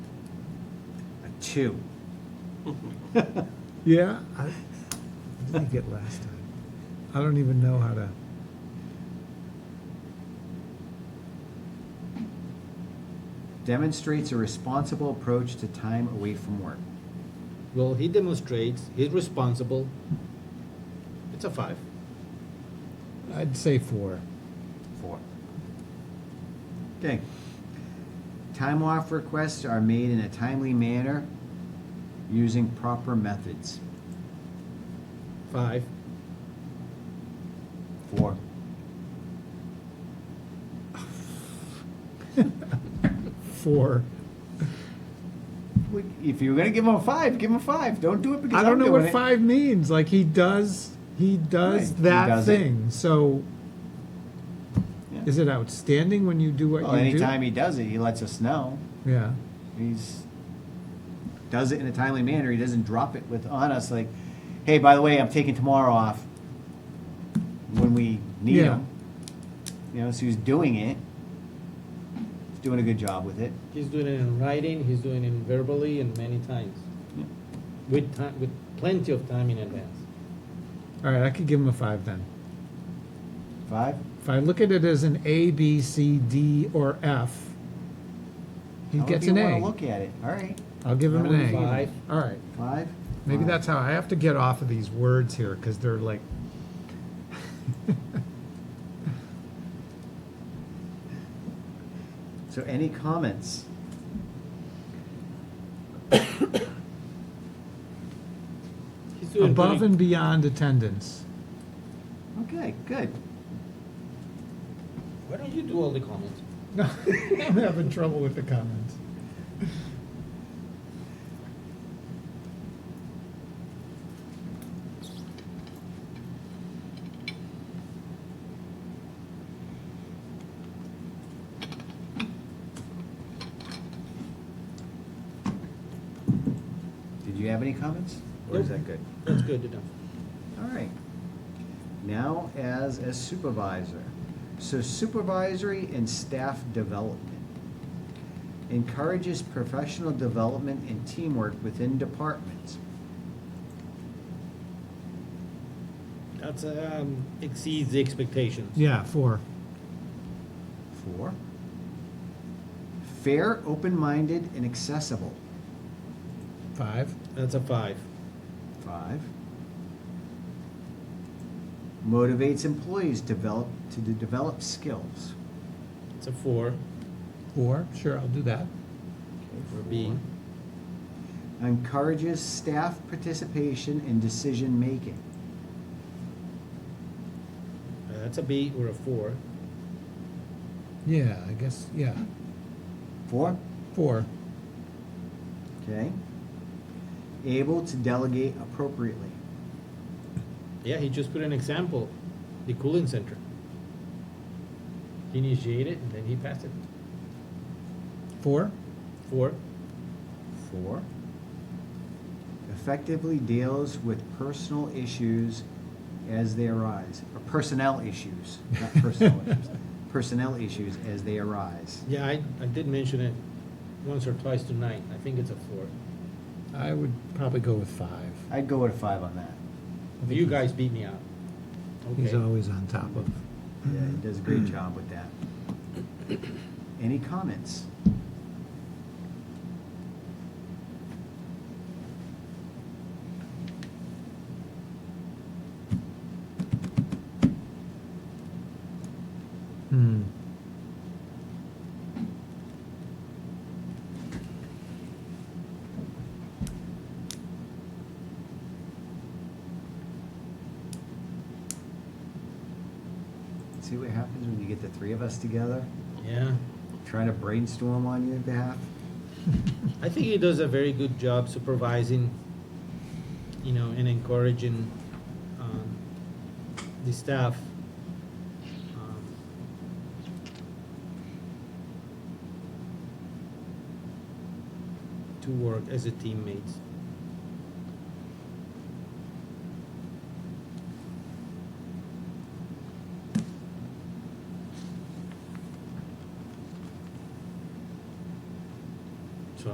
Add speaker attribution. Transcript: Speaker 1: two.
Speaker 2: Yeah, I, what did I get last time? I don't even know how to.
Speaker 1: Demonstrates a responsible approach to time away from work.
Speaker 3: Well, he demonstrates, he's responsible. It's a five.
Speaker 2: I'd say four.
Speaker 1: Four. Okay. Time off requests are made in a timely manner using proper methods.
Speaker 3: Five.
Speaker 1: Four.
Speaker 2: Four.
Speaker 1: We- If you're gonna give him a five, give him a five. Don't do it because
Speaker 2: I don't
Speaker 1: I'm
Speaker 2: know
Speaker 1: doing
Speaker 2: what
Speaker 1: it.
Speaker 2: five means. Like he does, he does
Speaker 1: Right, he
Speaker 2: that
Speaker 1: does it.
Speaker 2: thing. So,
Speaker 1: Yeah.
Speaker 2: is it outstanding when you do what
Speaker 1: Well,
Speaker 2: you
Speaker 1: Oh, anytime he does it, he lets us know.
Speaker 2: do? Yeah.
Speaker 1: He's does it in a timely manner. He doesn't drop it with on us like, hey, by the way, I'm taking tomorrow off when we need
Speaker 2: Yeah.
Speaker 1: him. You know, so he's doing it. He's doing a good job with it.
Speaker 3: He's doing it in writing, he's doing it verbally and many times.
Speaker 1: Yeah.
Speaker 3: With time, with plenty of time in advance.
Speaker 2: All right, I could give him a five then.
Speaker 1: Five.
Speaker 2: If I look at it as an A, B, C, D, or F, he
Speaker 1: However
Speaker 2: gets
Speaker 1: you
Speaker 2: an
Speaker 1: wanna
Speaker 2: A.
Speaker 1: Look at it. All right.
Speaker 2: I'll give him
Speaker 1: That
Speaker 2: an
Speaker 1: would
Speaker 2: A.
Speaker 1: be
Speaker 3: Five.
Speaker 2: All right.
Speaker 1: Five.
Speaker 2: Maybe
Speaker 1: Five.
Speaker 2: that's how I have to get off of these words here because they're like.
Speaker 1: So, any comments?
Speaker 3: He's doing
Speaker 2: above
Speaker 3: pretty-
Speaker 2: and beyond attendance.
Speaker 1: Okay. Good.
Speaker 3: Why don't you do all the comments?
Speaker 2: No, I'm having trouble with the comments.
Speaker 1: Did you have any comments? Or is
Speaker 3: Nope.
Speaker 1: that good?
Speaker 3: That's good enough.
Speaker 1: All right. Now as a supervisor. So supervisory and staff development encourages professional development and teamwork within departments.
Speaker 3: That's, um, exceeds the expectations.
Speaker 2: Yeah, four.
Speaker 1: Four. Fair, open-minded, and accessible.
Speaker 2: Five.
Speaker 3: That's a five.
Speaker 1: Five. Motivates employees develop to de- develop skills.
Speaker 3: It's a four.
Speaker 2: Four. Sure, I'll do that.
Speaker 3: Or B.
Speaker 1: Four. Encourages staff participation in decision making.
Speaker 3: Uh, That's a B or a four.
Speaker 2: Yeah, I guess. Yeah,
Speaker 1: Four.
Speaker 2: four.
Speaker 1: Okay. Able to delegate appropriately.
Speaker 3: Yeah, he just put an example, the cooling center. He initiated and then he passed it.
Speaker 2: Four.
Speaker 3: Four.
Speaker 1: Four. Effectively deals with personal issues as they arise, or personnel issues, not personal issues. Personnel issues as they arise.
Speaker 3: Yeah, I, I did mention it once or twice tonight. I think it's a four.
Speaker 2: I would probably go with five.
Speaker 1: I'd go with a five on that.
Speaker 3: You guys beat me out.
Speaker 2: He's
Speaker 3: Okay.
Speaker 2: always on top of.
Speaker 1: Yeah, he does a great
Speaker 2: Mm-hmm.
Speaker 1: job with that. Any comments?
Speaker 2: Hmm.
Speaker 1: See what happens when you get the three of us together,
Speaker 3: Yeah.
Speaker 1: trying to brainstorm on your behalf?
Speaker 3: I think he does a very good job supervising, you know, and encouraging um, the staff. Um, To work as a teammates.